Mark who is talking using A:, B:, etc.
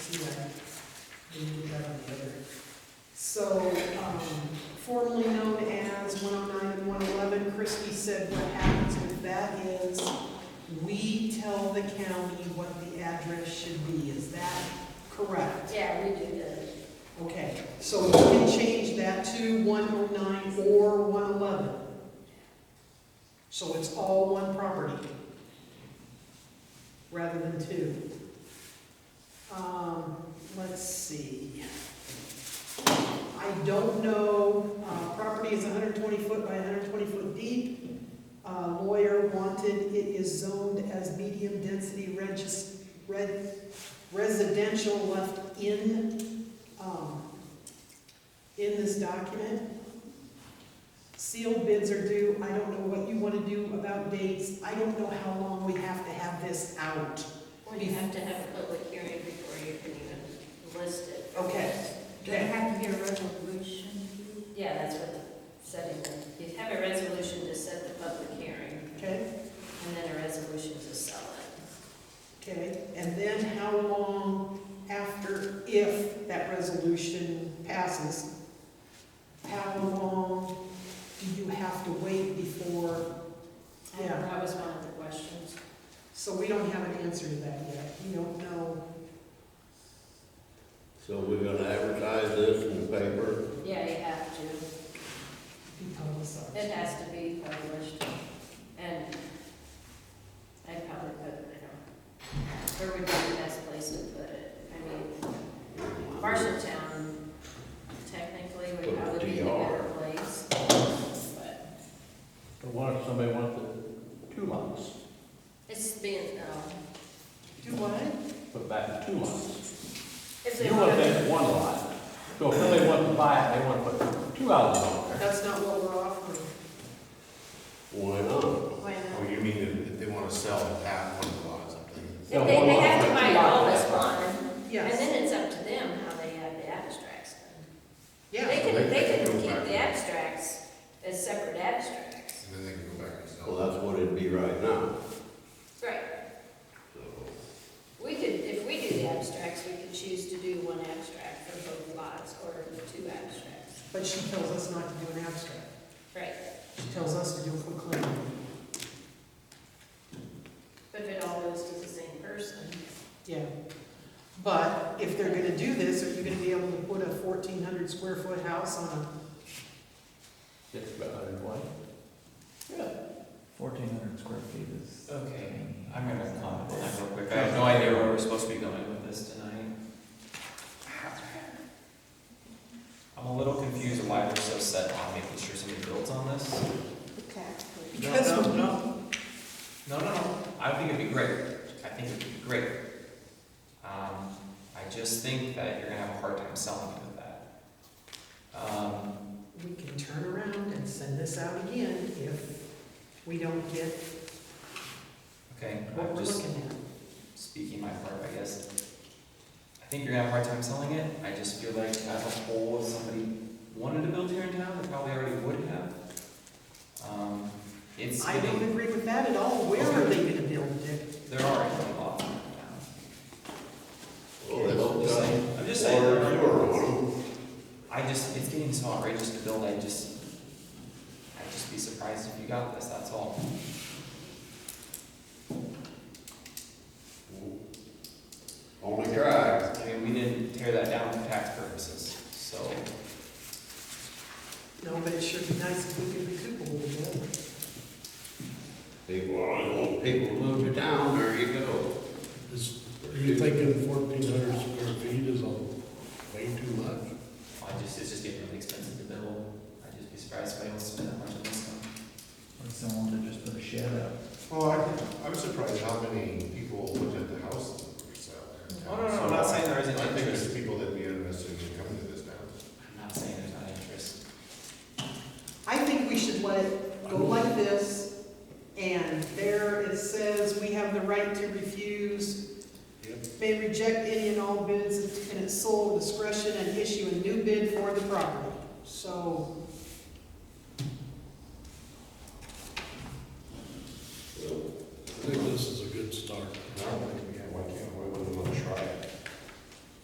A: yeah, we need that on the other. So, um, formerly known as one oh nine and one eleven, Christie said what happens with that is we tell the county what the address should be, is that correct?
B: Yeah, we do that.
A: Okay, so we can change that to one oh nine or one eleven. So it's all one property, rather than two. Um, let's see. I don't know, uh, property is hundred and twenty foot by hundred and twenty foot deep. Uh, lawyer wanted, it is zoned as medium density regis, red, residential left in um, in this document. Sealed bids are due, I don't know what you want to do about dates, I don't know how long we have to have this out.
B: Well, you have to have a public hearing before you can even list it.
A: Okay.
C: Do I have to get a resolution?
B: Yeah, that's what setting, you'd have a resolution to set the public hearing,
A: Okay,
B: and then a resolution to sell it.
A: okay, and then how long after, if that resolution passes, how long do you have to wait before Yeah.
B: And That was one of the questions.
A: So we don't have an answer to that yet, we don't know,
D: So we're gonna advertise this in the paper?
B: Yeah, you have to,
A: be publicized.
B: it has to be published, and I'd probably put, I don't, where would be the best place to put it? I mean, Marshalltown technically
D: Put
B: would
D: the
B: probably be the
D: DR.
B: better place, but.
E: But what if somebody wants the two lots,
B: It's been, um,
A: Do what?
E: put back the two lots?
B: if they
E: You want
B: want to,
E: that one lot, so if somebody wants to buy it, they want to put two houses on there.
A: That's not what we're offering.
D: Why not?
B: why not?
F: Oh, you mean if if they want to sell it at one of the lots, I think.
B: If They, they have to buy all this one, and
A: Yes,
B: then it's up to them how they have the abstracts done. They
A: yeah,
B: can,
F: they
B: they
F: can
B: can
F: go
B: keep
F: back.
B: the abstracts as separate abstracts.
F: And then they can go back and
D: Well,
F: sell it.
D: that's what it'd be right now,
B: Right,
D: so.
B: we could, if we do the abstracts, we could choose to do one abstract for both lots or two abstracts.
A: but she tells us not to do an abstract.
B: Right,
A: She tells us to do a quick claim.
B: but if it all goes to the same person,
A: Yeah. But if they're gonna do this, are you gonna be able to put a fourteen hundred square foot house on
E: It's about hundred and twenty.
G: Fourteen hundred square feet is.
H: Okay, I'm gonna comment on that real quick. I have no idea where we're supposed to be going with this tonight. I'm a little confused on why we're so set on making sure somebody builds on this.
C: The tax
A: a?
C: rate.
A: Because
H: No, no,
A: we-
H: no. No, no, no. I think it'd be great. I think it'd be great. Um, I just think that you're gonna have a hard time selling it with that. Um,
A: We can turn around and send this out again if we don't get
H: okay,
A: what
H: I'm
A: we're
H: just.
A: looking at.
H: speaking my part, I guess. I think you're gonna have a hard time selling it. I just feel like as a whole, if somebody wanted to build here in town, they probably already would have. Um, it's
A: I don't
H: getting,
A: agree with that at all. Where are they gonna build it?
H: there are a lot in town.
D: Well, they
H: I'm
D: don't
H: just
D: got
H: saying, I'm just saying.
D: water
H: there
D: and
H: are-
D: sewer on them.
H: I just, it's getting so outrageous to build, I just, I'd just be surprised if you got this, that's all.
D: Only try.
H: I mean, we didn't tear that down for tax purposes, so.
A: No, but it sure be nice if we could recoup a little bit.
D: People, always want people to move to town, there you go.
I: Is, are you thinking fourteen hundred square feet is a, way too much?
H: I just, it's just getting really expensive to build. I'd just be surprised if I don't spend that much on this one.
G: Or someone to just put a shed up.
F: Well, I, I was surprised how many people looked at the house that were selling. in town.
H: I'm not saying there
F: I
H: isn't
F: think there's
H: interest.
F: people that'd be interested in coming to this town.
H: I'm not saying there's not interest.
A: I think we should let it go like this, and there it says, we have the right to refuse, may reject any and all bids in its sole discretion and issue a new bid for the property. So